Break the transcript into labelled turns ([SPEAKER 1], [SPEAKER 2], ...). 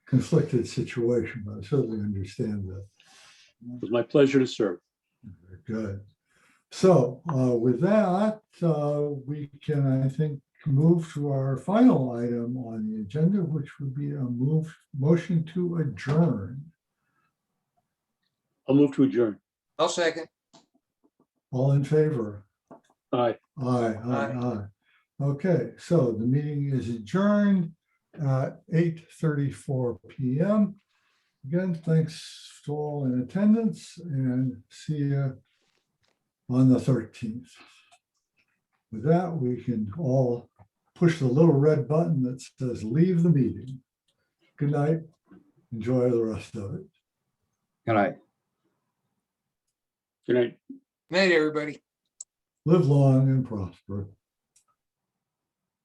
[SPEAKER 1] conflicted situation, but I certainly understand that.
[SPEAKER 2] It was my pleasure to serve.
[SPEAKER 1] Very Good. So uh, with that, uh, we can, I think, move to our final item on the agenda, which would be a move, motion to adjourn.
[SPEAKER 2] I'll move to adjourn.
[SPEAKER 3] I'll second.
[SPEAKER 1] All in favor?
[SPEAKER 2] Aye.
[SPEAKER 1] Aye, aye, aye. Okay, so the meeting is adjourned at eight thirty-four PM. Again, thanks to all in attendance and see you on the thirteenth. With that, we can all push the little red button that says leave the meeting. Good night. Enjoy the rest of it.
[SPEAKER 4] Good night.
[SPEAKER 2] Good night.
[SPEAKER 3] Night, everybody.
[SPEAKER 1] Live long and prosper.